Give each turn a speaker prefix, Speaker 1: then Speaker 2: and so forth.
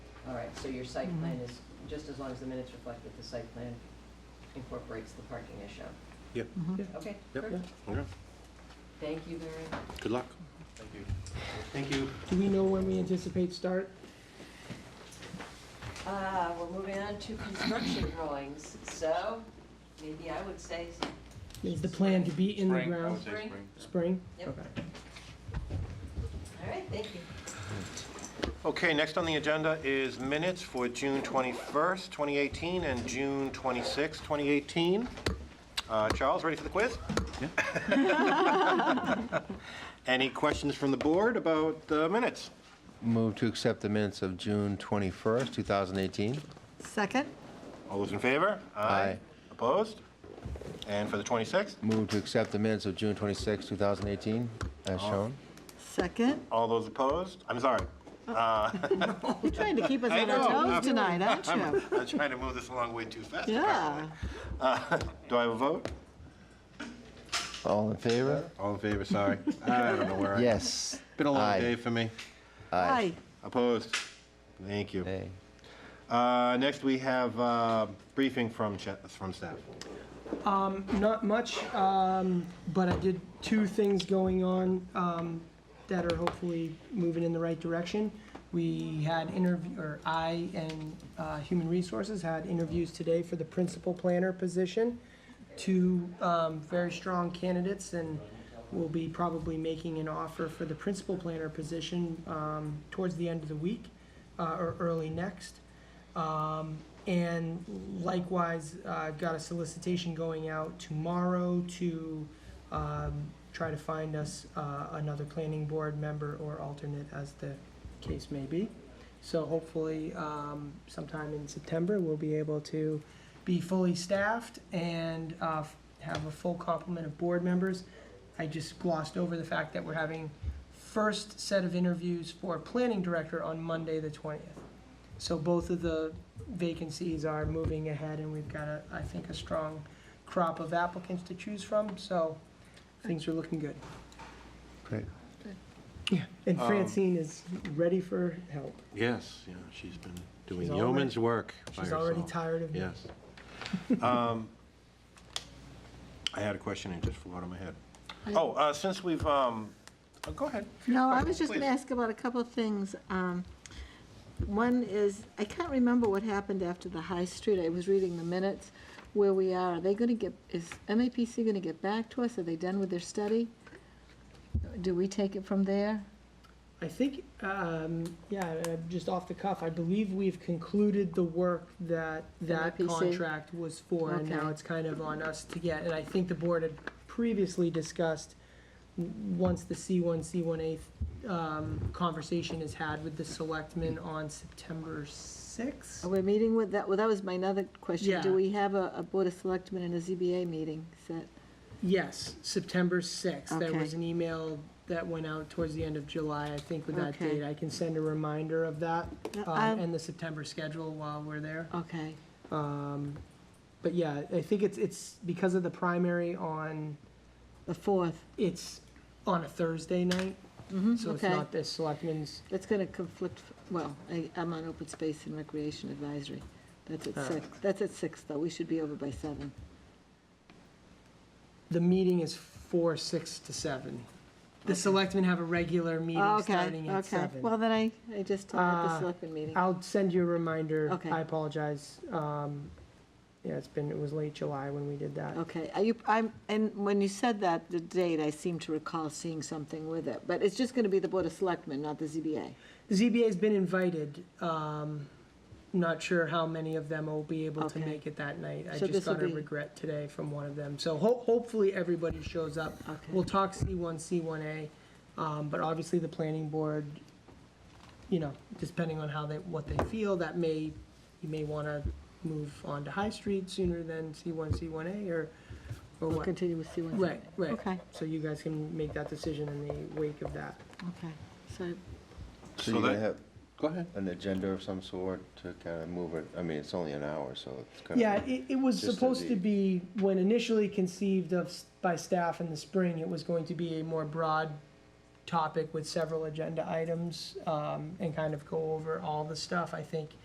Speaker 1: So your site
Speaker 2: Mhm.
Speaker 1: plan is, just as long as the minutes reflect that the site plan incorporates the parking issue.
Speaker 2: Mhm.
Speaker 1: Okay,
Speaker 3: Yep.
Speaker 1: perfect.
Speaker 3: Okay.
Speaker 1: Thank you very much.
Speaker 3: Good luck.
Speaker 4: Thank you. Thank you.
Speaker 2: Do we know when we anticipate start?
Speaker 1: Uh, we're moving on to construction drawings, so maybe I would say,
Speaker 2: Is the plan to be in the
Speaker 4: Spring, I would
Speaker 2: ground?
Speaker 4: say
Speaker 1: Spring.
Speaker 4: spring.
Speaker 2: Spring?
Speaker 1: Yep.
Speaker 2: Okay.
Speaker 1: all right, thank you.
Speaker 4: Okay, next on the agenda is minutes for June 21st, 2018, and June 26th, 2018. Uh, Charles, ready for the quiz? Any questions from the board about the minutes?
Speaker 5: Move to accept the minutes of June 21st, 2018.
Speaker 6: Second?
Speaker 4: All those in favor?
Speaker 5: Aye.
Speaker 4: Opposed? And for the 26th,
Speaker 5: Move to accept the minutes of June 26th, 2018, as shown.
Speaker 6: Second?
Speaker 4: all those opposed? I'm sorry.
Speaker 6: You're trying to keep us
Speaker 4: I
Speaker 6: on our
Speaker 4: know.
Speaker 6: toes tonight, aren't you?
Speaker 4: I'm trying to move this along way too fast.
Speaker 6: Yeah.
Speaker 4: Do I have a vote?
Speaker 5: All in favor?
Speaker 4: All in favor, sorry. I don't know where I...
Speaker 5: Yes.
Speaker 4: Been a long
Speaker 5: Aye.
Speaker 4: day for me.
Speaker 6: Hi.
Speaker 4: Opposed? Thank you.
Speaker 5: Nay.
Speaker 4: Uh, Next, we have uh, briefing from cha- from staff.
Speaker 2: Not much, um, but I did two things going on, um, that are hopefully moving in the right direction. We had interview, or I and, uh, Human Resources had interviews today for the principal planner position. Two, um, very strong candidates and we'll be probably making an offer for the principal planner position, um, towards the end of the week, uh, or early next. And likewise, uh, got a solicitation going out tomorrow to um, try to find us uh, another planning board member or alternate, as the case may be. So hopefully, um, sometime in September, we'll be able to be fully staffed and uh, f- have a full complement of board members. I just glossed over the fact that we're having first set of interviews for planning director on Monday, the 20th. So both of the vacancies are moving ahead, and we've got a, I think, a strong crop of applicants to choose from, so things are looking good.
Speaker 5: Great.
Speaker 2: Yeah. And Francine is ready for help.
Speaker 4: Yes, yeah, she's been doing
Speaker 2: She's already-
Speaker 4: yeoman's work by
Speaker 2: She's already
Speaker 4: herself.
Speaker 2: tired of me.
Speaker 4: Yes. Um, I had a question and it just flew out of my head. Oh, uh, since we've, um, oh, go ahead.
Speaker 6: No, I was just
Speaker 4: Please.
Speaker 6: gonna ask about a couple of things. Um, One is, I can't remember what happened after the High Street. I was reading the minutes where we are. Are they gonna get, is MAPC gonna get back to us? Are they done with their study? Do we take it from there?
Speaker 2: I think, um, yeah, uh, just off the cuff, I believe we've concluded the work that that
Speaker 6: MIPC?
Speaker 2: contract was for, and now
Speaker 6: Okay.
Speaker 2: it's kind of on us to get, and I think the board had previously discussed, w- once the C one, C one A, um, conversation is had with the selectmen on September sixth.
Speaker 6: Are we meeting with, that, well, that was my another question.
Speaker 2: Yeah.
Speaker 6: Do we have a, a Board of Selectmen and a ZBA meeting set?
Speaker 2: Yes, September sixth, there was
Speaker 6: Okay.
Speaker 2: an email that went out towards the end of July, I think, with that
Speaker 6: Okay.
Speaker 2: date, I can send a reminder of that,
Speaker 6: Yeah,
Speaker 2: um,
Speaker 6: I'll-
Speaker 2: and the September schedule while we're there.
Speaker 6: Okay,
Speaker 2: Um, but yeah, I think it's, it's because of the primary on,
Speaker 6: the fourth.
Speaker 2: it's on a Thursday night, so it's
Speaker 6: okay.
Speaker 2: not the selectmen's,
Speaker 6: That's gonna conflict, well, I, I'm on open space and recreation advisory. That's at
Speaker 2: Ah.
Speaker 6: six, that's at six, though, we should be over by seven.
Speaker 2: the meeting is four, six to seven. The selectmen have a regular meeting
Speaker 6: Oh, Okay,
Speaker 2: starting at
Speaker 6: okay,
Speaker 2: seven.
Speaker 6: well, then I, I just told at
Speaker 2: Uh,
Speaker 6: the selectmen meeting.
Speaker 2: I'll send you a reminder,
Speaker 6: Okay.
Speaker 2: I apologize, um, yeah, it's been, it was late July when we did that.
Speaker 6: Okay, are you, I'm, and when you said that, the date, I seem to recall seeing something with it, but it's just gonna be the Board of Selectmen, not the ZBA.
Speaker 2: ZBA's been invited, um, not sure how many of them will be able to
Speaker 6: Okay.
Speaker 2: make it that night. I
Speaker 6: So
Speaker 2: just
Speaker 6: this will
Speaker 2: got a
Speaker 6: be-
Speaker 2: regret today from one of them, so ho- hopefully everybody shows up.
Speaker 6: Okay.
Speaker 2: We'll talk C one, C one A, um, but obviously the planning board, you know, depending on how they, what they feel, that may, you may wanna move on to High Street sooner than C one, C one A, or, or
Speaker 6: We'll
Speaker 2: what?
Speaker 6: continue with C one.
Speaker 2: Right, right.
Speaker 6: Okay,
Speaker 2: So you guys can make that decision in the wake of that.
Speaker 6: okay, so,
Speaker 5: So
Speaker 4: So
Speaker 5: you're going
Speaker 4: that-
Speaker 5: to have
Speaker 4: Go ahead.
Speaker 5: an agenda of some sort to kind of move it? I mean, it's only an hour, so it's kind of...
Speaker 2: Yeah, it, it was
Speaker 5: Just to
Speaker 2: supposed to be, when initially conceived of s- by staff in the spring, it was going to be a more broad topic with several agenda items, um, and kind of go over all the stuff. I think